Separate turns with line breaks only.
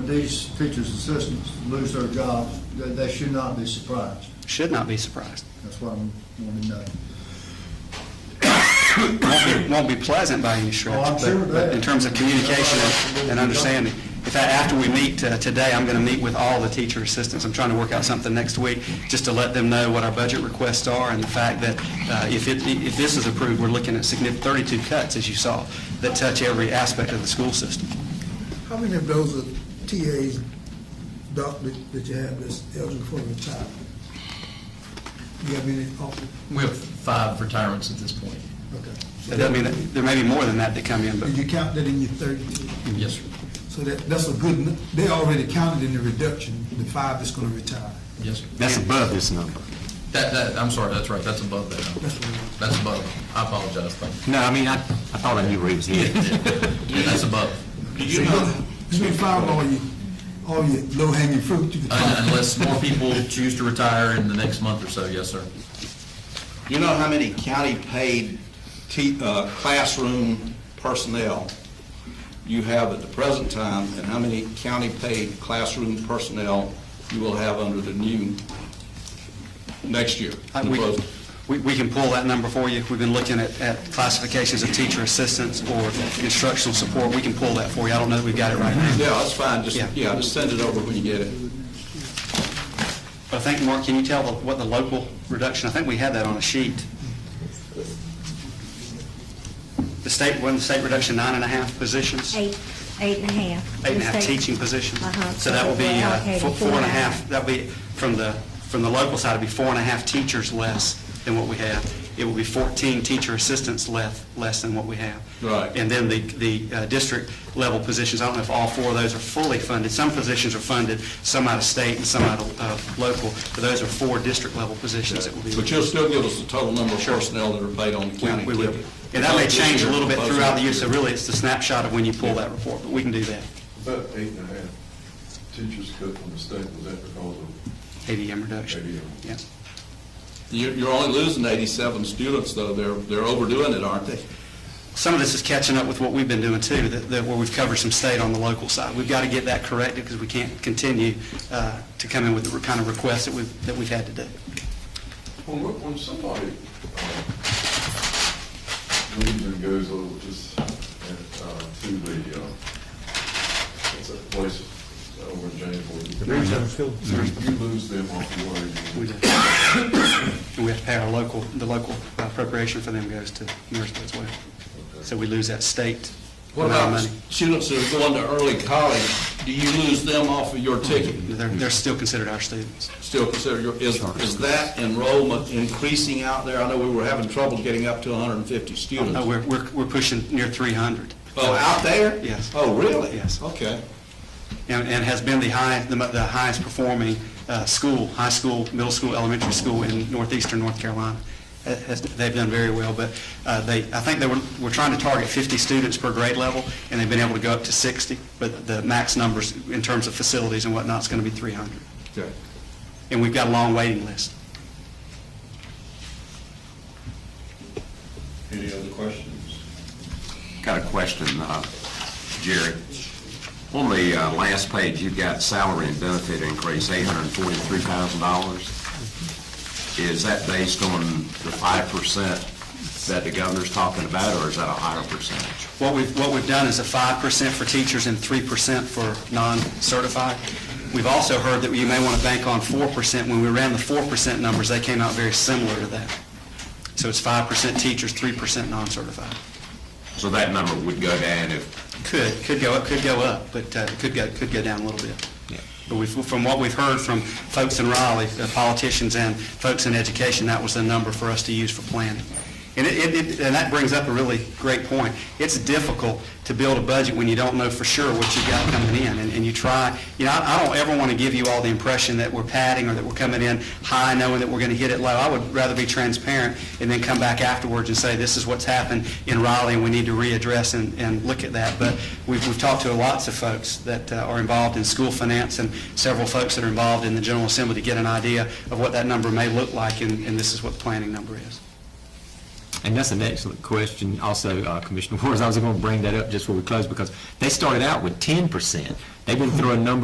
these teachers' assistants lose their jobs, they, they should not be surprised.
Should not be surprised.
That's what I'm wanting to know.
Won't be, won't be pleasant by any stretch.
Oh, I'm
but-
sure of
but
that.
In terms of communication and- and understanding. In fact, after we meet uh, today, I'm going to meet with all the teacher assistants. I'm trying to work out something next week, just to let them know what our budget requests are and the fact that uh, if it, if this is approved, we're looking at significant, 32 cuts, as you saw, that touch every aspect of the school system.
How many of those are TAs, doc, that that you have that's eligible for retirement? You have any offer?
We have five retirements at this point.
Okay. So
That doesn't mean that, there may be more than that that come in, but
Did you count that in your thirty-two?
Yes, sir.
So that, that's a good, nu- they already counted in the reduction, the five that's gonna retire.
Yes, sir.
that's above this.
That, that, I'm sorry, that's right, that's above that. number. That's above. I apologize, thank you.
No, I mean, I, I thought I knew where he was headed.
Yeah, that's above.
Do you know,
It's been five all your, all your low-hanging fruit you could.
Un-
find.
Unless more people choose to retire in the next month or so, yes, sir.
you know how many county-paid te- uh, classroom personnel you have at the present time, and how many county-paid classroom personnel you will have under the new, next year?
Uh, we- We, we can pull that number for you. We've been looking at, at classifications of teacher assistants or instructional support. We can pull that for you. I don't know that we've got it right now.
Yeah, that's fine, just,
Yeah.
yeah, just send it over when you get it.
But I think, Mark, can you tell the- what the local reduction, I think we had that on a sheet. The state, wasn't the state reduction nine and a half positions?
Eight, eight and a half.
Eight and a half
Mistake.
teaching positions.
Uh-huh.
So that will be
We're
uh,
allocating
four four and a half, that'll be, from the, from the local side, it'll be four and a half teachers less than what we have. It will be 14 teacher assistants less, less than what we have.
Right.
And then the, the uh, district level positions, I don't know if all four of those are fully funded. Some positions are funded, some out of state and some out of uh, local, but those are four district level positions that will be.
But you'll still give us the total number of personnel that are paid on the county.
We will.
ticket.
And that may change a little bit
Proposed
throughout the year,
next
so really it's the snapshot of when you pull that report, but we can do that.
About eight and a half teachers cut from the state, was that because of,
ADM reduction.
ADM.
Yeah.
You're, you're only losing 87 students, though. They're, they're overdoing it, aren't they?
Some of this is catching up with what we've been doing too, that, that where we've covered some state on the local side. We've got to get that corrected because we can't continue uh, to come in with the kind of requests that we've, that we've had to do.
when, when somebody uh, leaves and goes over just, uh, to the, uh, what's that place over in Janesville? You lose them off the
We do.
way.
And we have to pay our local, the local uh, appropriation for them goes to Marysville as well. So we lose that state
What
amount
about
of money.
students that are going to early college? Do you lose them off of your ticket?
They're, they're still considered our students.
Still consider your, is, is that enrollment increasing out there? I know we were having trouble getting up to 150 students.
No, Uh, we're, we're we're pushing near 300.
Oh, out there?
Yes.
Oh, really?
Yes.
Okay.
and, and has been the high, the mo- the highest performing uh, school, high school, middle school, elementary school in northeastern North Carolina. Ha- has- They've done very well, but uh, they, I think they were, were trying to target 50 students per grade level, and they've been able to go up to 60, but the max numbers in terms of facilities and whatnot is going to be 300.
Okay.
And we've got a long waiting list.
Any other questions?
Got a question, uh, Jerry. On the uh, last page, you've got salary and benefit increase, $843,000. Is that based on the 5% that the governor's talking about, or is that a higher percentage?
What we've, what we've done is a five percent for teachers and three percent for non-certified. We've also heard that you may want to bank on four percent. When we ran the four percent numbers, they came out very similar to that. So it's five percent teachers, three percent non-certified.
So that number would go down if,
Could, could go up, could go up, but uh, it could go, could go down a little bit. But we've, from what we've heard from folks in Raleigh, uh, politicians and folks in education, that was the number for us to use for planning. And it- it, it- and that brings up a really great point. It's difficult to build a budget when you don't know for sure what you've got coming in, and and you try, you know, I I don't ever want to give you all the impression that we're padding or that we're coming in high knowing that we're going to hit it low. I would rather be transparent and then come back afterwards and say, this is what's happened in Raleigh, and we need to readdress and, and look at that. But we've, we've talked to lots of folks that uh, are involved in school finance and several folks that are involved in the General Assembly to get an idea of what that number may look like, and, and this is what the planning number is.
And that's an excellent question also, uh, Commissioner Wars. I was going to bring that up just before we close because they started out with 10%. They've been throwing numbers